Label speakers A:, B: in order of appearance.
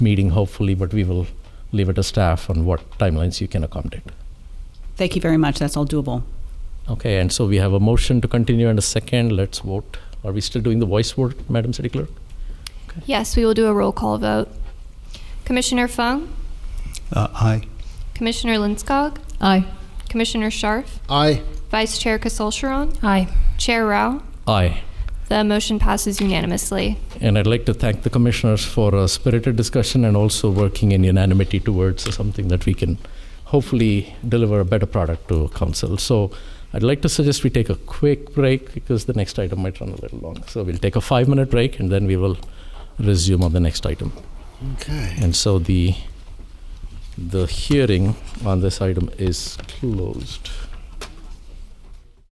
A: meeting, hopefully, but we will leave it to staff on what timelines you can accommodate.
B: Thank you very much. That's all doable.
A: Okay, and so we have a motion to continue and a second. Let's vote. Are we still doing the voice vote, Madam City Clerk?
C: Yes, we will do a roll call vote. Commissioner Fung,
D: Uh, aye.
C: Commissioner Linskog,
E: Aye.
C: Commissioner Scharf,
D: Aye.
C: Vice Chair Casulcheron,
E: Aye.
C: Chair Rao.
A: Aye.
C: The motion passes unanimously.
A: And I'd like to thank the commissioners for a spirited discussion and also working in unanimity towards something that we can hopefully deliver a better product to council. So I'd like to suggest we take a quick break because the next item might run a little long. So we'll take a five minute break and then we will resume on the next item.
D: Okay.
A: And so the the hearing on this item is closed.